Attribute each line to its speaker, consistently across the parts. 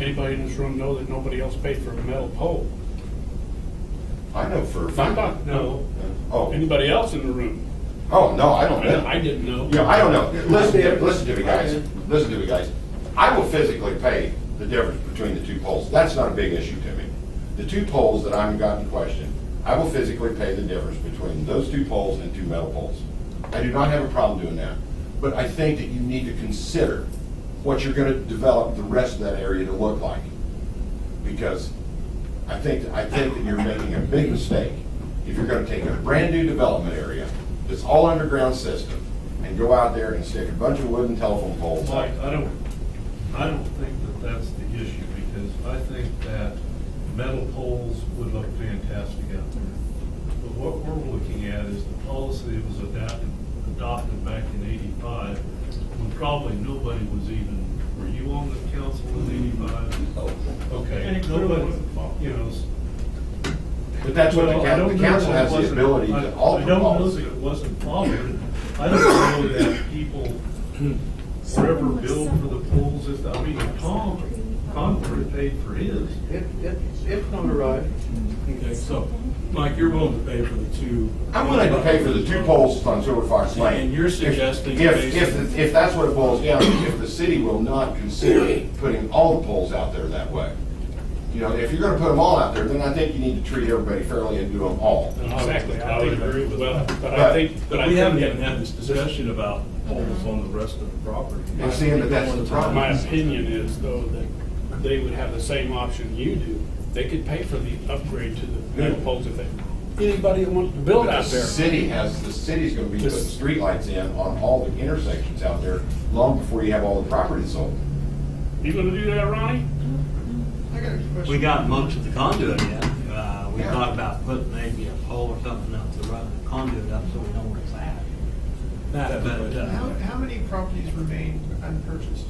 Speaker 1: anybody in this room know that nobody else paid for a metal pole?
Speaker 2: I know for a
Speaker 1: I'm
Speaker 2: fact.
Speaker 1: not, no,
Speaker 2: Oh,
Speaker 1: anybody else in the room?
Speaker 2: oh, no, I don't know.
Speaker 1: I didn't know.
Speaker 2: You know, I don't know. Listen to, listen to me, guys. Listen to me, guys. I will physically pay the difference between the two poles. That's not a big issue to me. The two poles that I'm got in question, I will physically pay the difference between those two poles and two metal poles. I do not have a problem doing that. But I think that you need to consider what you're gonna develop the rest of that area to look like. Because I think, I think that you're making a big mistake if you're gonna take a brand-new development area that's all underground system and go out there and stick a bunch of wooden telephone poles up.
Speaker 3: Mike, I don't, I don't think that that's the issue, because I think that metal poles would look fantastic out there. But what we're looking at is the policy that was adopted, adopted back in eighty-five, when probably nobody was even, were you on the council in eighty-five?
Speaker 1: And
Speaker 3: Okay,
Speaker 1: it clearly
Speaker 3: nobody,
Speaker 1: wasn't involved.
Speaker 3: you know, s-
Speaker 2: But that's what the
Speaker 3: well, I
Speaker 2: coun-
Speaker 3: don't
Speaker 2: the
Speaker 3: know
Speaker 2: council
Speaker 3: that
Speaker 2: has the
Speaker 3: wasn't-
Speaker 2: ability
Speaker 3: I-
Speaker 2: to alter
Speaker 3: I don't know
Speaker 2: policy.
Speaker 3: that it wasn't followed. I don't know that people forever billed for the poles, if, I mean, Tom, Concord paid for his.
Speaker 4: It, it, it's not arrived.
Speaker 5: Okay, so, Mike, you're willing to pay for the two.
Speaker 2: I'm willing to pay for the two poles on Silver Fox Lane.
Speaker 5: And you're
Speaker 2: If-
Speaker 5: suggesting
Speaker 2: If,
Speaker 5: based-
Speaker 2: if, if that's what it boils down to, if the city will not consider putting all the poles out there that way. You know, if you're gonna put them all out there, then I think you need to treat everybody fairly and do them all.
Speaker 1: Exactly, I
Speaker 3: think
Speaker 1: would agree with that. But I
Speaker 2: But-
Speaker 1: think, but I
Speaker 5: But we haven't even
Speaker 1: think,
Speaker 5: had this discussion about poles on the rest of the property.
Speaker 2: I'm seeing that that's the
Speaker 1: that-
Speaker 2: problem.
Speaker 1: my opinion is though, that they would have the same option you do. They could pay for the upgrade to the metal poles if they, anybody that wants to build
Speaker 2: But
Speaker 1: out
Speaker 2: the
Speaker 1: there.
Speaker 2: city has, the city's gonna be putting
Speaker 1: This-
Speaker 2: streetlights in on all the intersections out there long before you have all the properties sold.
Speaker 1: You gonna do that, Ronnie?
Speaker 4: I got a question.
Speaker 6: We got most of the conduit in. Uh, we
Speaker 2: Yeah.
Speaker 6: talked about putting maybe a pole or something up to run the conduit up so we know where it's at.
Speaker 5: That, but, uh,
Speaker 4: How, how many properties remain unpurchased?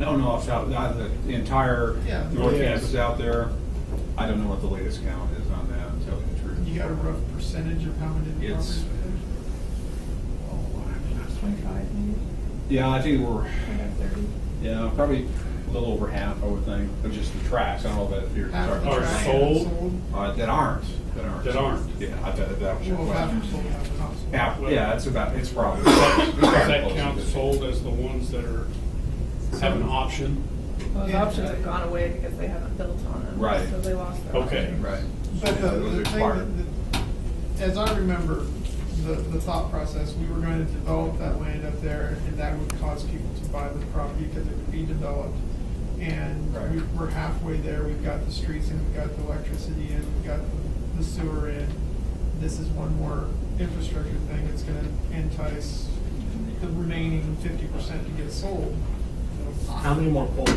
Speaker 7: I don't know off the top- not the entire
Speaker 4: Yeah.
Speaker 7: North
Speaker 1: Yes.
Speaker 7: Campus out there. I don't know what the latest count is on that, I'm telling you the truth.
Speaker 4: You got a rough percentage of how many Oh, properties?
Speaker 7: It's-
Speaker 4: Twenty-five,
Speaker 7: Yeah, I think we're, yeah, probably a little over half, I would think, of just the tracks. I don't know about if you're.
Speaker 4: Half
Speaker 7: talking
Speaker 4: the
Speaker 1: Are
Speaker 7: tracks.
Speaker 4: tracks
Speaker 1: sold?
Speaker 7: Uh, that aren't, that aren't.
Speaker 1: That aren't.
Speaker 7: Yeah, I thought that was your
Speaker 4: Well, half are sold,
Speaker 7: question.
Speaker 4: half are not sold.
Speaker 7: Half, yeah, it's about, it's probably.
Speaker 1: Does that
Speaker 7: close to
Speaker 1: count
Speaker 7: 50.
Speaker 1: sold as the ones that are, have an option?
Speaker 8: Those options have gone away because they haven't built on them.
Speaker 7: Right.
Speaker 8: So they lost their.
Speaker 1: Okay.
Speaker 8: option.
Speaker 7: Right.
Speaker 4: But
Speaker 7: Yeah,
Speaker 4: the,
Speaker 7: those
Speaker 4: the thing,
Speaker 7: expired.
Speaker 4: that- that- as I remember, the, the thought process, we were going to develop that land up there, and that would cause people to buy the property because it would be developed. And
Speaker 7: Right.
Speaker 4: we, we're halfway there, we've got the streets in, we've got the electricity in, we've got the sewer in. This is one more infrastructure thing that's gonna entice the remaining fifty percent to get sold.
Speaker 5: how many more poles?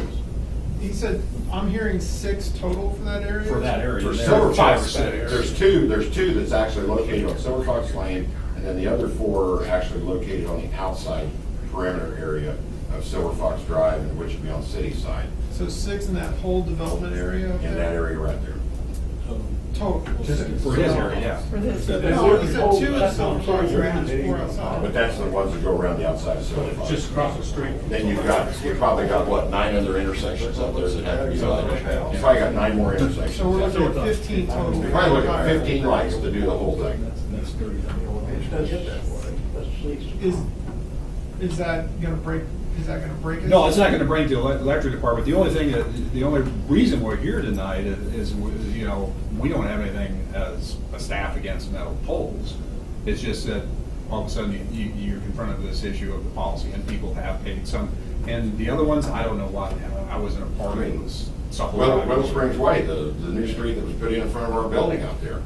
Speaker 4: He said, I'm hearing six total for that area?
Speaker 7: For that area.
Speaker 2: For
Speaker 7: there.
Speaker 2: Silver
Speaker 7: Five
Speaker 2: Fox,
Speaker 7: percent area.
Speaker 2: there's two, there's two that's actually located on Silver Fox Lane, and then the other four are actually located on the outside perimeter area of Silver Fox Drive, and which would be on city side,
Speaker 4: So six in that whole development area? up
Speaker 2: in
Speaker 4: there?
Speaker 2: that area right there.
Speaker 4: Total.
Speaker 5: Just
Speaker 4: six.
Speaker 7: For his area, yeah.
Speaker 8: For this.
Speaker 7: So there's-
Speaker 4: No, he said two in
Speaker 5: That's
Speaker 4: Silver
Speaker 5: not
Speaker 4: Fox,
Speaker 5: true.
Speaker 4: and four outside.
Speaker 2: But that's the ones that go around the outside of Silver Fox.
Speaker 1: Just across the street.
Speaker 2: Then you've got, you've probably got, what, nine other intersections up there that have to be lighted? You've probably got nine more intersections.
Speaker 4: So we're looking at fifteen total.
Speaker 2: You're probably looking at fifteen lights to do the whole thing.
Speaker 5: That's, that's thirty.
Speaker 4: Is, is that gonna break, is that gonna break it?
Speaker 7: No, it's not going to break the ele- electric department. The only thing, that the only reason we're here tonight i- is, you know, we don't have anything as a staff against metal poles. It's just that all of a sudden you- you, you're confronted with this issue of the policy and people have paid some. And the other ones, I don't know why, I wasn't a part of this.
Speaker 2: Well, Well Springs Way, the, the new street that was put in in front of our building out there.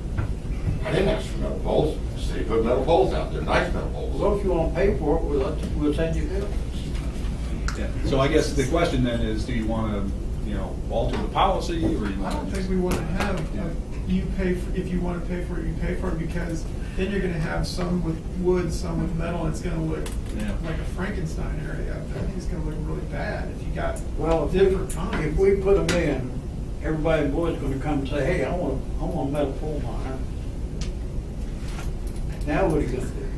Speaker 2: I didn't ask for metal poles, the city put metal poles out there, nice metal poles.
Speaker 6: Well, if you want to pay for it, we'll, we'll send you bill.
Speaker 7: Yeah. So I guess the question then is, do you want to, you know, alter the policy or you
Speaker 4: I
Speaker 7: want
Speaker 4: don't
Speaker 7: to just?
Speaker 4: think we wanna have, a- you pay, for if you wanna pay for it, you pay for it, because then you're gonna have some with wood, some with metal, and it's gonna look
Speaker 7: Yeah.
Speaker 4: like a Frankenstein area. out there. I think it's gonna look really bad if you got
Speaker 6: Well, if
Speaker 4: different
Speaker 6: we, if
Speaker 4: kinds.
Speaker 6: we put them in, everybody in Boyd's gonna come and say, hey, I want, I want a metal pole miner. Now what are you gonna do?